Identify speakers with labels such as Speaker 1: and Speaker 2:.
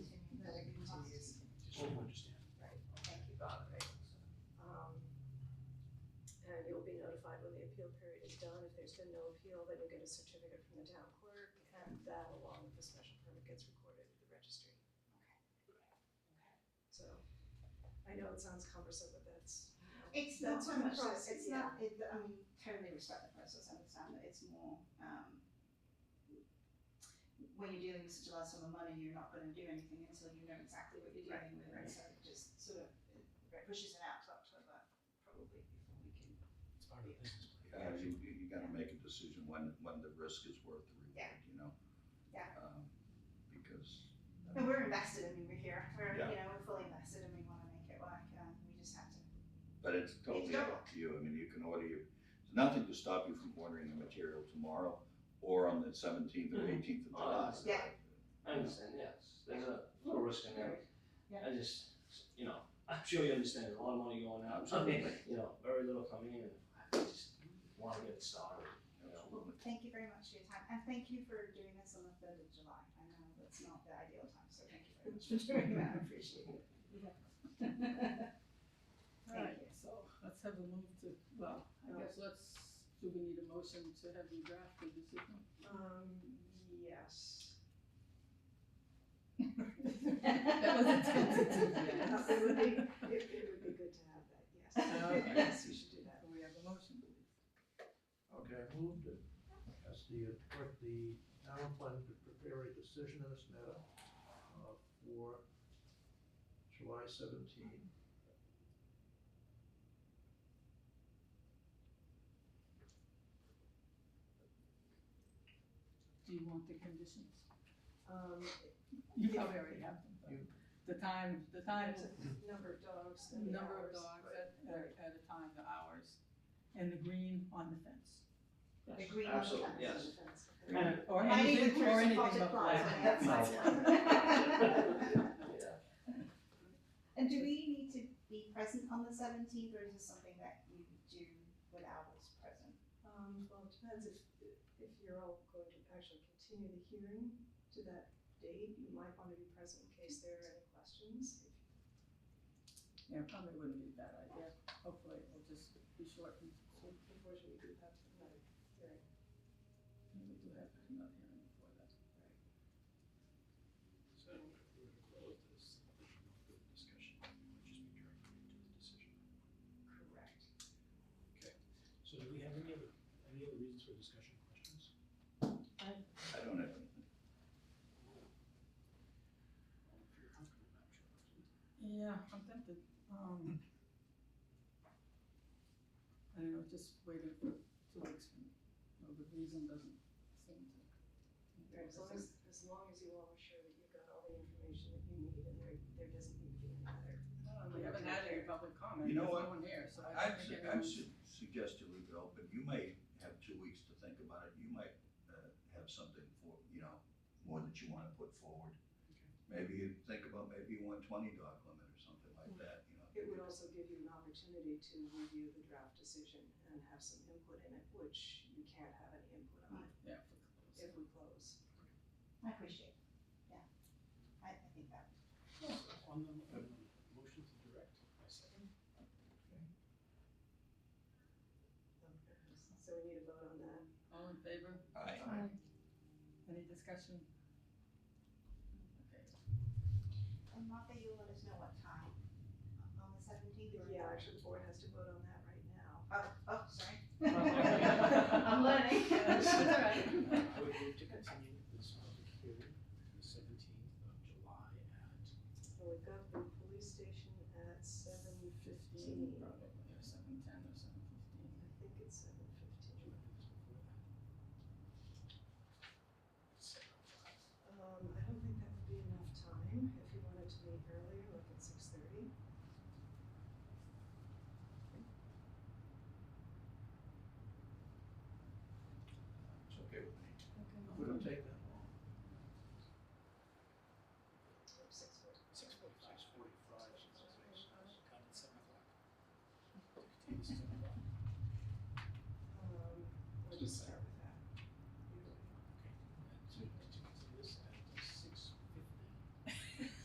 Speaker 1: Um, appeal period is done, if there's been no appeal, then you'll get a certificate from the town clerk, and that along with the special permit gets recorded with the registry. So, I know it sounds cumbersome, but that's,
Speaker 2: It's not
Speaker 1: That's
Speaker 2: so
Speaker 1: what
Speaker 2: much,
Speaker 1: I'm
Speaker 2: that-
Speaker 1: saying,
Speaker 2: it's not, it, I mean, totally respect the process, understand that it's more, um, when you're dealing with such a large sum of money, you're not gonna do anything until you know exactly what you're dealing with, and so it just sort of it
Speaker 1: Right.
Speaker 2: pushes it out to October, probably before we can.
Speaker 3: It's part of the business plan.
Speaker 4: Uh, you, you you gotta make a decision when, when the risk is worth the reward,
Speaker 2: Yeah.
Speaker 4: you know?
Speaker 2: Yeah.
Speaker 4: Um, Because.
Speaker 2: And we're invested, I mean, we're here, we're,
Speaker 4: Yeah.
Speaker 2: you know, we're fully invested and we wanna make it work, and we just have to,
Speaker 4: But it's totally up to you, I mean, you can order your, there's nothing to stop you from ordering the material tomorrow or on the seventeenth or
Speaker 5: Mhm.
Speaker 4: eighteenth of
Speaker 5: Oh,
Speaker 4: July.
Speaker 2: yeah.
Speaker 5: I understand, yes, there's a little risk in there.
Speaker 2: Yeah.
Speaker 5: I just, you know, I'm sure you understand, there's a lot of money going out,
Speaker 2: Oh,
Speaker 5: so, you know, very little coming in, and I just want to get it started, you know.
Speaker 4: Absolutely.
Speaker 2: thank you very much for your time, and thank you for doing this on the third of July, I know that's not the ideal time, so thank you very much for doing that, I appreciate it. Thank you.
Speaker 6: Alright, so let's have a move to, well, I guess let's, do we need a motion to have you draft the decision?
Speaker 1: um, yes.
Speaker 6: That was a tentative
Speaker 1: Yes, It would be, it it would be good to have that, yes.
Speaker 6: Okay.
Speaker 1: Yes, we should do that.
Speaker 6: Do we have a motion, please?
Speaker 7: Okay, I moved it. As the, uh, clerk, the town planning to prepare a decision in this matter uh, for July seventeen.
Speaker 6: Do you want the conditions?
Speaker 1: Um,
Speaker 6: You probably already have them,
Speaker 7: You-
Speaker 6: but the time, the time,
Speaker 1: there's a number of dogs and the
Speaker 6: number of
Speaker 1: hours.
Speaker 6: dogs
Speaker 1: Right.
Speaker 6: at, at at a time, the hours, and the green on the fence.
Speaker 2: The green on the
Speaker 5: Absolutely,
Speaker 2: fence.
Speaker 5: yes.
Speaker 6: And- Or
Speaker 2: Might even
Speaker 6: anything,
Speaker 2: through
Speaker 6: or
Speaker 2: some
Speaker 6: anything but
Speaker 2: potted
Speaker 6: black.
Speaker 2: plants, that's fine.
Speaker 5: Yeah.
Speaker 2: And do we need to be present on the seventeenth, or is this something that you do without us present?
Speaker 1: Um, well, it depends if, if you're all going to actually continue the hearing to that date, you might want to be present in case there are any questions.
Speaker 6: Yeah, probably wouldn't be a bad idea, hopefully it will just be short and sweet,
Speaker 1: Unfortunately, we do have another hearing.
Speaker 6: and we do have another hearing before that.
Speaker 3: So if we were to close this, there should not be a discussion, it would just be directly into the decision.
Speaker 1: Correct.
Speaker 3: So do we have any other, any other reasons for discussion or questions?
Speaker 4: I don't have anything.
Speaker 3: Well, if you're comfortable, Madam Chairperson.
Speaker 6: Yeah, I'm tempted, um. I don't know, just waiting for two weeks from, no, the reason doesn't seem to.
Speaker 1: As long as, as long as you all are sure that you've got all the information that you need and there, there doesn't need to be another.
Speaker 6: Uh, We haven't had any public comment,
Speaker 4: You know
Speaker 6: there's
Speaker 4: what?
Speaker 6: no one here, so I
Speaker 4: I'd,
Speaker 6: don't
Speaker 4: su-
Speaker 6: think
Speaker 4: I'd
Speaker 6: anyone.
Speaker 4: su- suggest you leave it open, you may have two weeks to think about it, you might, uh, have something for, you know, more that you wanna put forward.
Speaker 3: Okay.
Speaker 4: Maybe you think about, maybe you want twenty dog limit or something like
Speaker 6: Hmm.
Speaker 4: that, you know.
Speaker 1: It would also give you an opportunity to review the draft decision and have some input in it, which you can't have any input on
Speaker 6: Yeah, for close.
Speaker 1: if we close.
Speaker 2: I appreciate it, yeah. I, I think that,
Speaker 3: On the, on the motion to direct, I second.
Speaker 1: So we need a vote on that.
Speaker 6: All in favor,
Speaker 4: I,
Speaker 6: any discussion? Okay,
Speaker 2: and Martha, you'll let us know what time, on the seventeenth, or?
Speaker 1: Yeah, actually, the board has to vote on that right now.
Speaker 2: Oh, oh, sorry.
Speaker 6: I'm
Speaker 2: learning.
Speaker 3: I would move to continue this public hearing to the seventeenth of July at
Speaker 1: So we've got the police station at seven
Speaker 6: fifteen,
Speaker 1: fifteen.
Speaker 6: probably, or seven ten or
Speaker 1: I
Speaker 6: seven fifteen.
Speaker 1: think it's seven fifteen. Um, I don't think that would be enough time if you wanted to meet earlier, like at six thirty.
Speaker 4: it's okay with me.
Speaker 1: Um,